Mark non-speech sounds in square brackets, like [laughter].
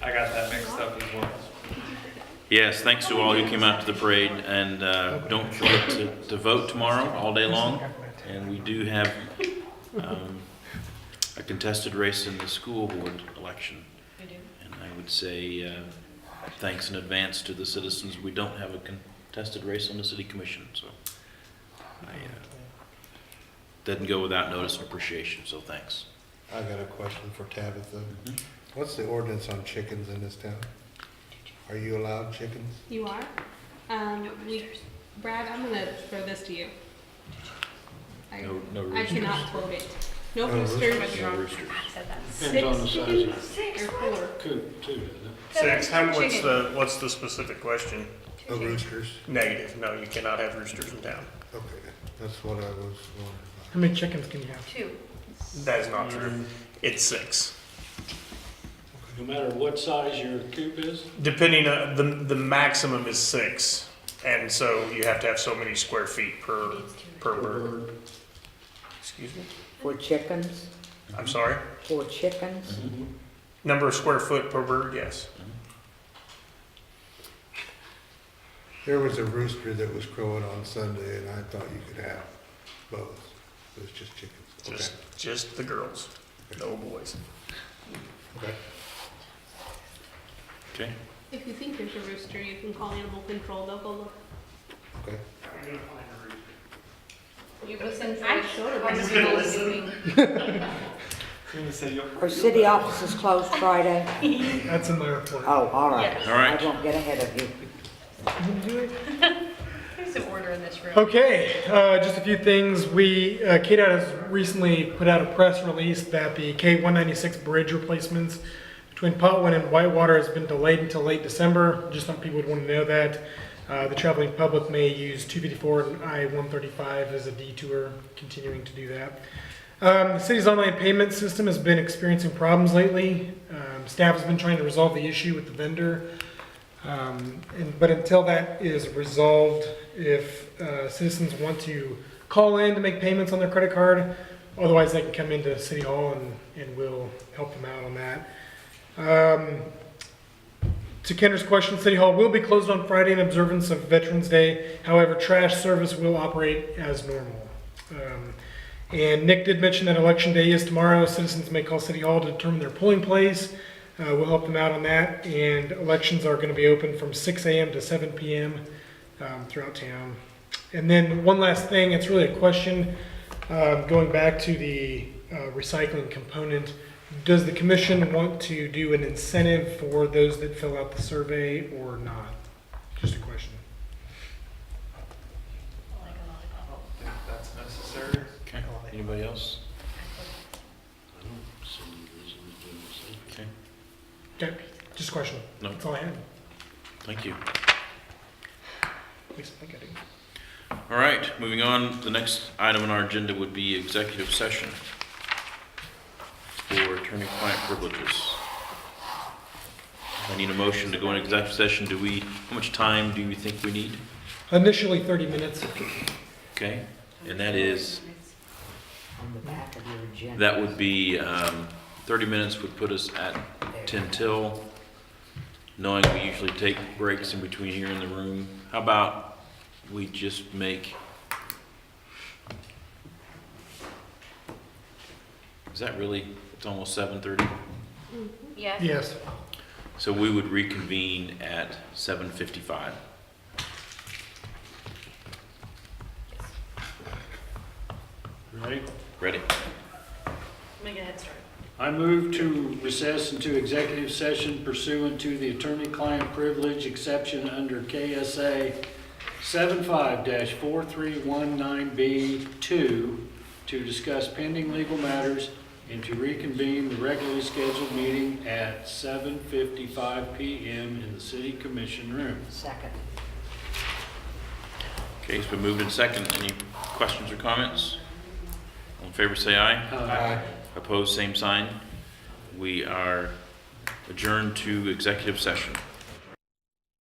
I got that mixed up as well. Yes, thanks to all who came out to the parade, and uh, don't forget to, to vote tomorrow, all day long. And we do have um, a contested race in the school board election. We do. And I would say uh, thanks in advance to the citizens. We don't have a contested race on the city commission, so I, uh, doesn't go without notice and appreciation, so thanks. I got a question for Tabitha. What's the ordinance on chickens in this town? Are you allowed chickens? You are? Um, we, Brad, I'm gonna throw this to you. I, No, no I roosters. cannot quote it. No No roosters No roosters. Depends on the size of it. or four. Coop too, doesn't Six, how, what's the, what's the specific question? No roosters? Negative, no, you cannot have roosters in town. Okay, that's what I was wondering about. How many chickens can you have? Two. That is not true. It's six. it? No matter what size your coop is, Depending on, the, the maximum is six, and so you have to have so many square feet per, per bird. or Excuse me? For chickens, I'm sorry? for chickens, Number of square foot per bird, yes. There was a rooster that was crowing on Sunday and I thought you could have both. It was just chickens. Okay. Just, just the girls, no boys. Okay. Okay, If you think there's a rooster, you can call animal control, they'll go look. Okay. You listen first. I showed him. are city offices closed Friday? [laughs] That's in my report. Oh, all right. all right. I won't get ahead of you. There's some order in this room. Okay, uh, just a few things. We, uh, KDOT has recently put out a press release that the K-196 bridge replacements between Potwin and Whitewater has been delayed until late December. Just some people would want to know that. Uh, The traveling public may use 254 and I-135 as a detour, continuing to do that. Um, The city's online payment system has been experiencing problems lately. Um, Staff has been trying to resolve the issue with the vendor. Um, and, but until that is resolved, if uh, citizens want to call in to make payments on their credit card, otherwise they can come into City Hall and, and we'll help them out on that. Um, to Kendra's question, City Hall will be closed on Friday in observance of Veterans Day. However, trash service will operate as normal. Um, and Nick did mention that Election Day is tomorrow. Citizens may call City Hall to determine their polling place. Uh, we'll help them out on that, and elections are going to be open from 6 a.m. to 7 p.m. Um, throughout town. And then one last thing, it's really a question, um, going back to the uh, recycling component. Does the commission want to do an incentive for those that fill out the survey or not? Just a question. That's necessary. Okay, anybody else? Okay, Okay, just a question. No. That's all I had. thank you. At least I think I do. All right, moving on, the next item on our agenda would be executive session for attorney-client privileges. I need a motion to go into executive session. Do we, how much time do you think we need? Initially 30 minutes. Okay, and that is, On the back of your agenda. that would be, um, thirty minutes would put us at ten till, knowing we usually take breaks in between here in the room. How about we just make? Is that really, it's almost seven thirty? Yes. Yes. So we would reconvene at seven fifty-five. right? Ready? Make a head start. I move to recess into executive session pursuant to the attorney-client privilege exception under KSA 75-4319B2 to discuss pending legal matters and to reconvene the regularly scheduled meeting at 7:55 PM in the city commission room. Second. Okay, it's been moved in second. Any questions or comments? All in favor, say aye. Aye. Opposed, same sign. We are adjourned to executive session.